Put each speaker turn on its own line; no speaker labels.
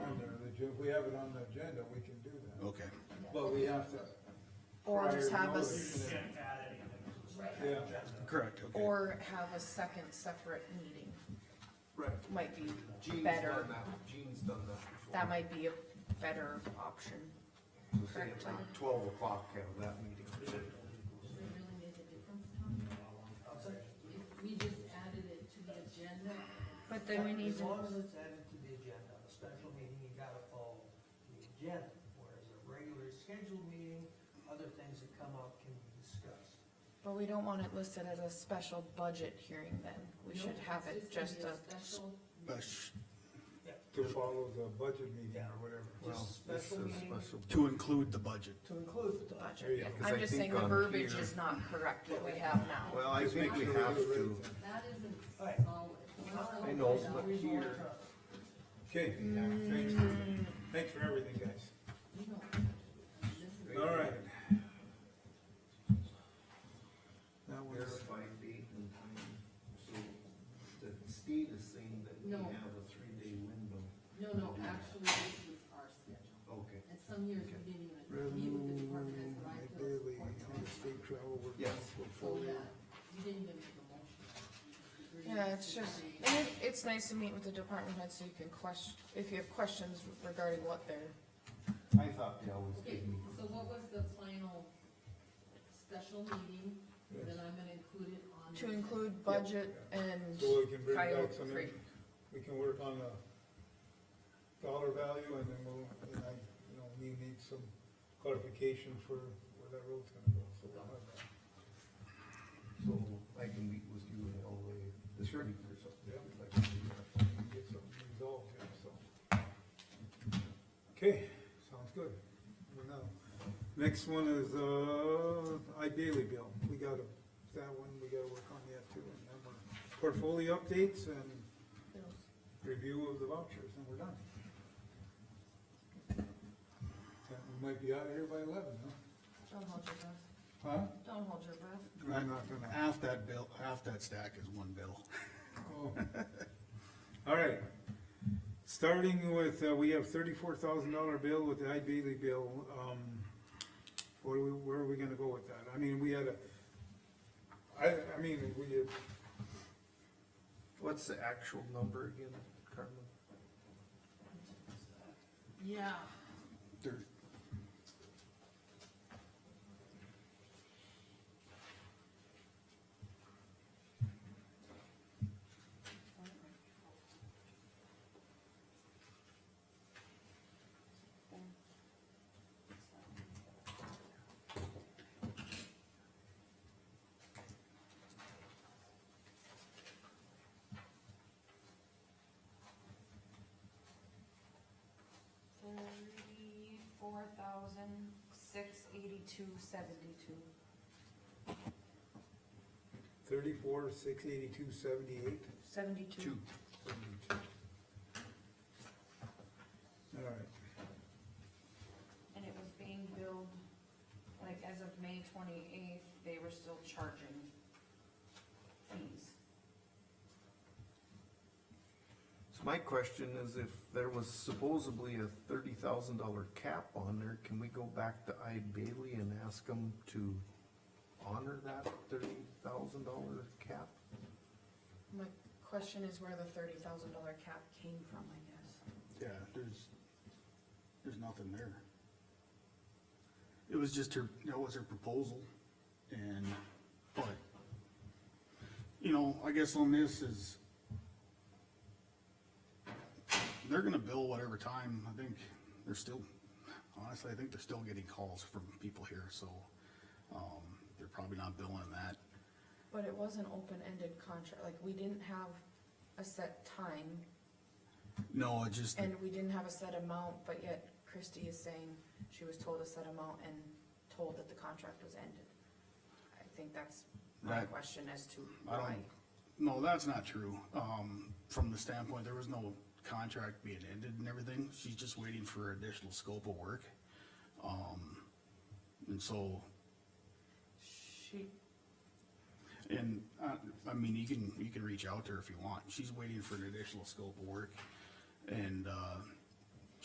we have it on the agenda, we can do that.
Okay,
But we have to.
Or
prior
just have
notice
us-
it.
can't add anything.
Yeah,
correct, okay.
Or have a second separate meeting,
right.
might be
Gene's
better,
done that, Gene's done that before.
that might be a better option.
We'll say at like Twelve o'clock, have that meeting.
Does it really make a difference, Tom? If we just added it to the agenda,
But then we need
As
to,
long as it's added to the agenda, a special meeting, you gotta follow the agenda, whereas a regular scheduled meeting, other things that come up can be discussed.
But we don't want it listed as a special budget hearing then, we should
no,
have it
it's
just
gonna
a,
be special.
But sh-
To follow the budget meeting or whatever.
Well,
Just
this
special
is
meeting.
special.
To include the budget.
To include the budget.
There you
budget.
go.
Because I
I'm just saying
think
the
on
verbiage
here-
is not correct what we have now.
Well, I think we have to,
That isn't
Right.
solid.
I know, but here,
Okay, thanks, thanks for everything, guys.
You don't have to. This is-
All right. That
there's
was,
five date and time, so the state is saying that we
No.
have a three-day window.
No, no, actually, this was our schedule.
Okay,
And some years we didn't even meet with the
revenue,
department heads when I
my
filled
daily,
support
kind of
notes.
state travel, work
Yes.
So, yeah,
portfolio.
you didn't even make a motion. You agreed
Yeah, it's
to
just,
the-
and it, it's nice to meet with the department head so you can question, if you have questions regarding what they're,
I thought they always
Okay,
gave me.
so what was the final special meeting,
Yes.
then I'm gonna include it on.
to
the-
include budget and
So we can bring back
Coyote
some,
Creek.
we can work on the dollar value and then we'll, and I, you know, we need some clarification for where that road's gonna go, so we'll have that.
So I can meet with you in LA this week or something.
Yeah.
I'd like to do that.
and get something resolved here, so. Okay, sounds good. Well, now, Next one is, uh, iDaily bill. We got a, that one, we gotta work on yet too. And then we're portfolio updates and review of the vouchers, and we're done. And We might be out of here by eleven,
Don't hold your breath,
huh? Huh?
don't hold your breath.
I'm not gonna.
Half that bill, half that stack is one bill.
Oh. All right, starting with, uh, we have thirty-four thousand dollar bill with the iDaily bill, um, what are we, where are we gonna go with that? I mean, we had a, I, I mean, we, had-
What's the actual number again, Carmen?
Yeah,
There-
thirty-four thousand, six eighty-two, seventy-two.
thirty-four, six eighty-two, seventy-eight.
Seventy-two.
Two.
All right,
And it was being billed, like, as of May twenty-eighth, they were still charging fees.
So my question is if there was supposedly a thirty thousand dollar cap on there, can we go back to I Bailey and ask them to honor that thirty thousand dollar cap?
My question is where the thirty thousand dollar cap came from, I guess.
Yeah, there's, there's nothing there. It was just her, that was her proposal, and, but, you know, I guess on this is, they're gonna bill whatever time, I think, they're still, honestly, I think they're still getting calls from people here, so, um, they're probably not billing that.
But it was an open-ended contract, like, we didn't have a set time,
No, it just,
and we didn't have a set amount, but yet Christie is saying she was told a set amount and told that the contract was ended. I think that's my
That-
question as to
I
why.
don't, no, that's not true. Um, from the standpoint, there was no contract being ended and everything. She's just waiting for additional scope of work. Um, and so,
She,
and, uh, I mean, you can, you can reach out to her if you want. She's waiting for an additional scope of work. And, uh,